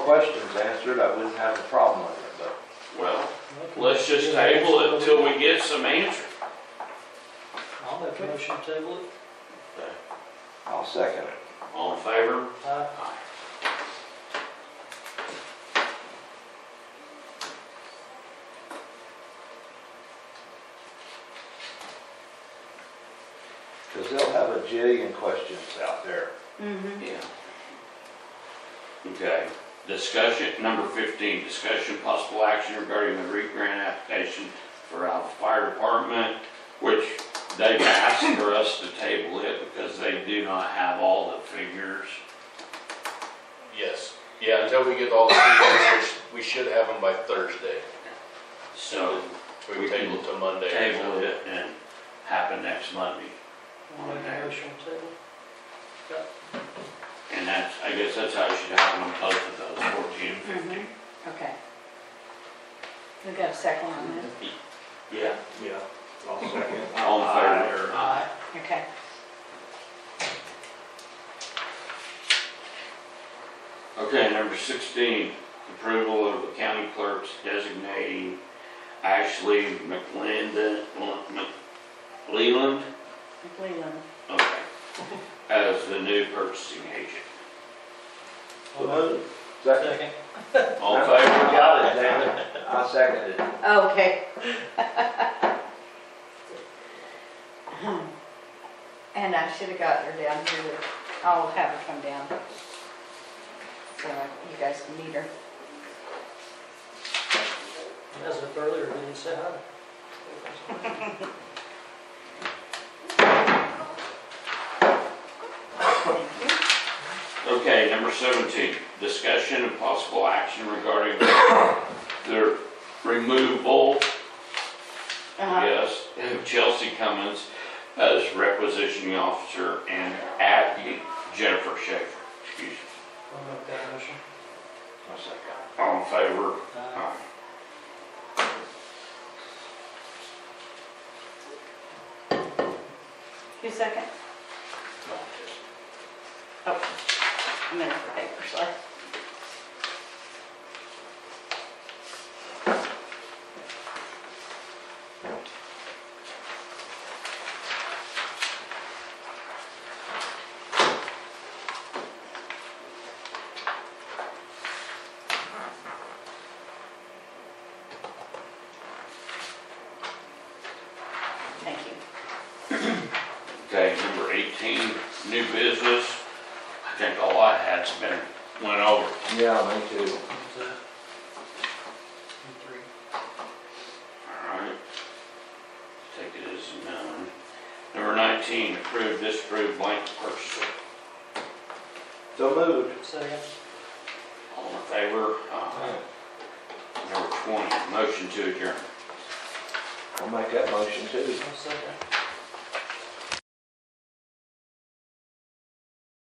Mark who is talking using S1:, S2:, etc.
S1: questions answered, I wouldn't have a problem with it, but.
S2: Well, let's just table it until we get some answer.
S3: I'll make a motion to table it.
S1: I'll second it.
S2: All in favor?
S3: Aye.
S1: Because they'll have a jillion questions out there.
S4: Mm-hmm.
S2: Yeah. Okay, discussion, number fifteen, discussion possible action regarding the REIT grant application for our fire department, which they've asked for us to table it because they do not have all the figures.
S5: Yes, yeah, until we get all the figures, we should have them by Thursday.
S2: So
S5: We
S2: We
S5: can table
S2: can
S5: it till Monday.
S2: table it and happen next Monday.
S3: I'll make a motion to table.
S2: And that's, I guess that's how it should happen on both of those, fourteen and fifteen.
S4: Okay. We got a second on that?
S2: Yeah.
S1: Yeah, I'll second.
S2: All in favor? Aye.
S4: Okay.
S2: Okay, number sixteen, approval of the county clerk's designating Ashley McLendon, McLeland,
S4: Leland.
S2: okay, as the new purchasing agent.
S3: I'll move.
S1: Second.
S3: Second.
S2: All in favor?
S1: Got it, damn it. I seconded it.
S4: Okay. And I should have got her down here. I'll have her come down. So you guys can meet her.
S3: And As of earlier, we didn't say hi.
S2: Okay, number seventeen, discussion and possible action regarding the- the removal,
S4: Uh-huh.
S2: yes, of Chelsea Cummins as requisitioning officer and adding Jennifer Schaefer, excuse me.
S3: I'll make that motion. Uh,
S1: I'll second.
S2: All in favor?
S3: Aye.
S2: Aye.
S4: You second? Okay. I'm in for paper, so. Thank you.
S2: Okay, number 18, new business. I think all I had's been, went over.
S1: Yeah, me too.
S3: Two. And three.
S2: All right. Take it as known. Number 19, approve, disapprove blank purchase.
S1: So moved.
S3: Second.
S2: All in favor? Aye. Number 20, motion to adjourn.
S1: I'll make that motion too.
S3: I'll second.